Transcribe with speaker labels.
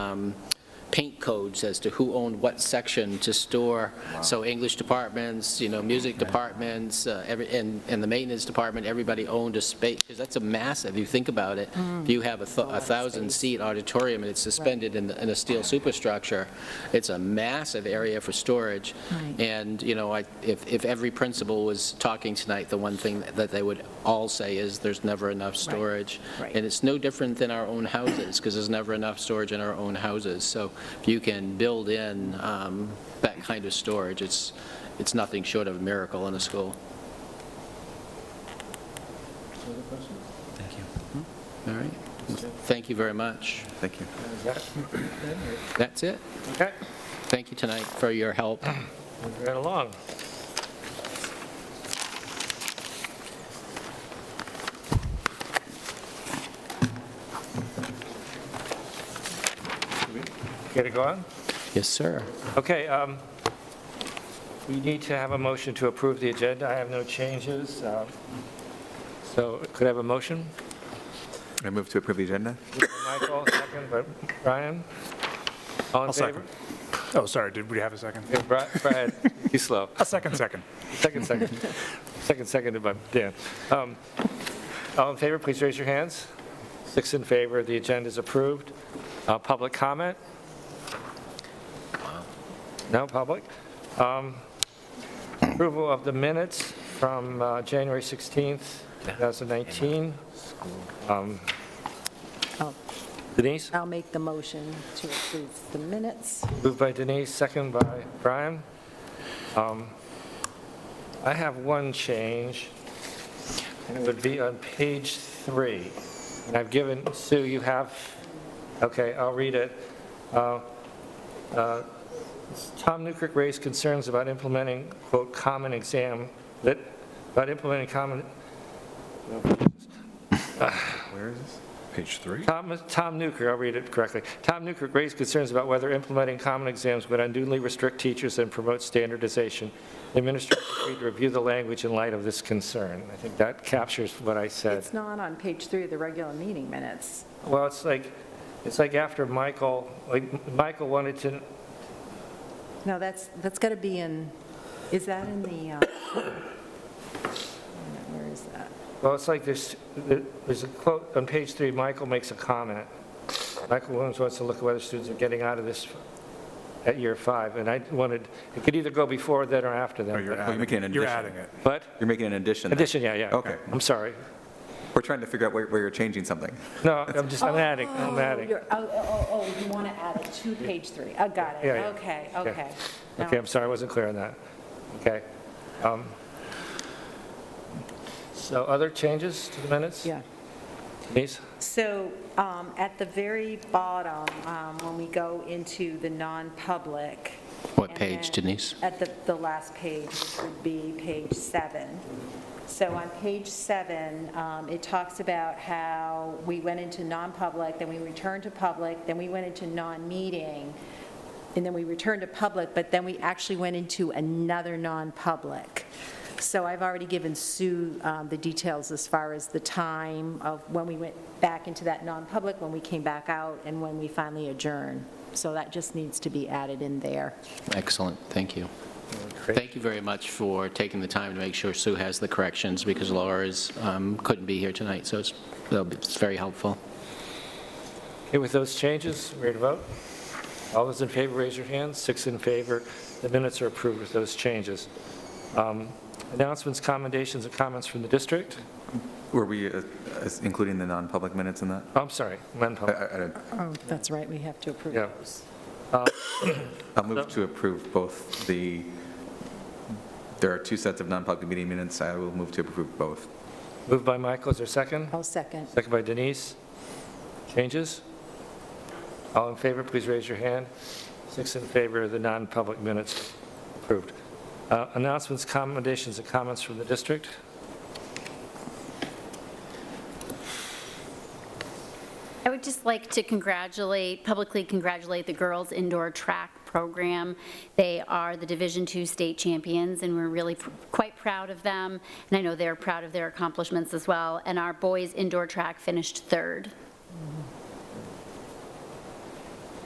Speaker 1: um, paint codes as to who owned what section to store. So English departments, you know, music departments, uh, every, and, and the maintenance department, everybody owned a space, because that's a massive, if you think about it.
Speaker 2: Mm.
Speaker 1: If you have a thou- a thousand-seat auditorium and it's suspended in, the- in a steel superstructure, it's a massive area for storage.
Speaker 2: Right.
Speaker 1: And, you know, I, if, if every principal was talking tonight, the one thing that they would all say is, there's never enough storage.
Speaker 2: right.
Speaker 1: And it's no different than our own houses, because there's never enough storage in our own houses. So if you can build in um, that kind of storage, it's, it's nothing short of a miracle in a school.
Speaker 3: Thank you.
Speaker 1: Hmm? All right? Thank you very much.
Speaker 3: Thank you.
Speaker 1: That's it.
Speaker 4: Okay,
Speaker 1: Thank you tonight for your help.
Speaker 4: moving right along. Get it going?
Speaker 1: Yes, sir.
Speaker 4: Okay, um, we need to have a motion to approve the agenda. I have no changes. um, So could I have a motion?
Speaker 3: I move to approve the agenda?
Speaker 4: Michael, second, but Brian? All in
Speaker 5: I'll
Speaker 4: favor?
Speaker 5: second. Oh, sorry, did we have a second?
Speaker 4: Yeah, Bri- Brian, you slow.
Speaker 5: A second, second.
Speaker 4: Second, second. Second, seconded by Dan. Um, All in favor, please raise your hands. Six in favor, the agenda is approved. Uh, Public comment? No public? Um, Approval of the minutes from uh, January 16th, 2019. Um,
Speaker 2: Oh,
Speaker 4: Denise,
Speaker 2: I'll make the motion to approve the minutes.
Speaker 4: moved by Denise, second by Brian. Um, I have one change. and It would be on page three. And I've given, Sue, you have, okay, I'll read it. Uh, uh, Tom Newkirk raised concerns about implementing, quote, "common exam," that, about implementing common,
Speaker 3: Where is this? Page three?
Speaker 4: Tom, Tom Newkirk, I'll read it correctly. Tom Newkirk raised concerns about whether implementing common exams would unduly restrict teachers and promote standardization. The Administration agreed to review the language in light of this concern. I think that captures what I said.
Speaker 2: It's not on page three of the regular meeting minutes.
Speaker 4: Well, it's like, it's like after Michael, like, Michael wanted to,
Speaker 2: No, that's, that's got to be in, is that in the, uh, where is that?
Speaker 4: well, it's like there's, there's a quote, on page three, Michael makes a comment. Michael Williams wants to look at whether students are getting out of this at year five, and I wanted, it could either go before that or after that.
Speaker 5: Oh, you're
Speaker 4: but-
Speaker 3: you're making
Speaker 5: adding
Speaker 3: an
Speaker 5: it. You're
Speaker 3: addition.
Speaker 5: adding it.
Speaker 4: But?
Speaker 3: You're making an addition. there.
Speaker 4: Addition, yeah, yeah.
Speaker 3: Okay.
Speaker 4: I'm sorry.
Speaker 3: We're trying to figure out where, where you're changing something.
Speaker 4: No, I'm just, I'm adding, I'm
Speaker 2: Oh,
Speaker 4: adding.
Speaker 2: you're- Oh, oh, oh, you want to add it to page three. I got it.
Speaker 4: Yeah, yeah.
Speaker 2: Okay,
Speaker 4: Yeah.
Speaker 2: okay. Now
Speaker 4: Okay, I'm sorry, I wasn't clear on that. Okay. Um, So other changes to the minutes?
Speaker 2: Yeah.
Speaker 4: Denise?
Speaker 6: So um, at the very bottom, um, when we go into the non-public.
Speaker 1: What
Speaker 6: and
Speaker 1: page,
Speaker 6: then
Speaker 1: Denise?
Speaker 6: At the, the last page which would be page seven. So on page seven, um, it talks about how we went into non-public, then we returned to public, then we went into non-meeting, and then we returned to public, but then we actually went into another non-public. So I've already given Sue um, the details as far as the time of when we went back into that non-public, when we came back out, and when we finally adjourned. So that just needs to be added in there.
Speaker 1: Excellent, thank you.
Speaker 4: great.
Speaker 1: Thank you very much for taking the time to make sure Sue has the corrections, because Laura is, um, couldn't be here tonight, so it's, that'll be- it's very helpful.
Speaker 4: Okay, with those changes, we're ready to vote? All those in favor, raise your hands. Six in favor. The minutes are approved with those changes. Um, Announcements, commendations, and comments from the district?
Speaker 3: Were we uh, uh, including the non-public minutes in that?
Speaker 4: Oh, I'm sorry,
Speaker 3: I,
Speaker 4: non-public.
Speaker 3: I, I don't-
Speaker 2: Oh, that's right, we have to approve
Speaker 4: Yeah.
Speaker 2: those.
Speaker 3: I'll move to approve both the, there are two sets of non-public meeting minutes. I will move to approve both.
Speaker 4: Moved by Michael, is there a second?
Speaker 2: I'll second.
Speaker 4: Second by Denise. Changes? All in favor, please raise your hand. Six in favor, the non-public minutes approved. Uh, Announcements, commendations, and comments from the district?
Speaker 7: I would just like to congratulate, publicly congratulate the girls indoor track program. They are the Division II state champions, and we're really pr- quite proud of them, and I know they're proud of their accomplishments as well, and our boys indoor track finished third.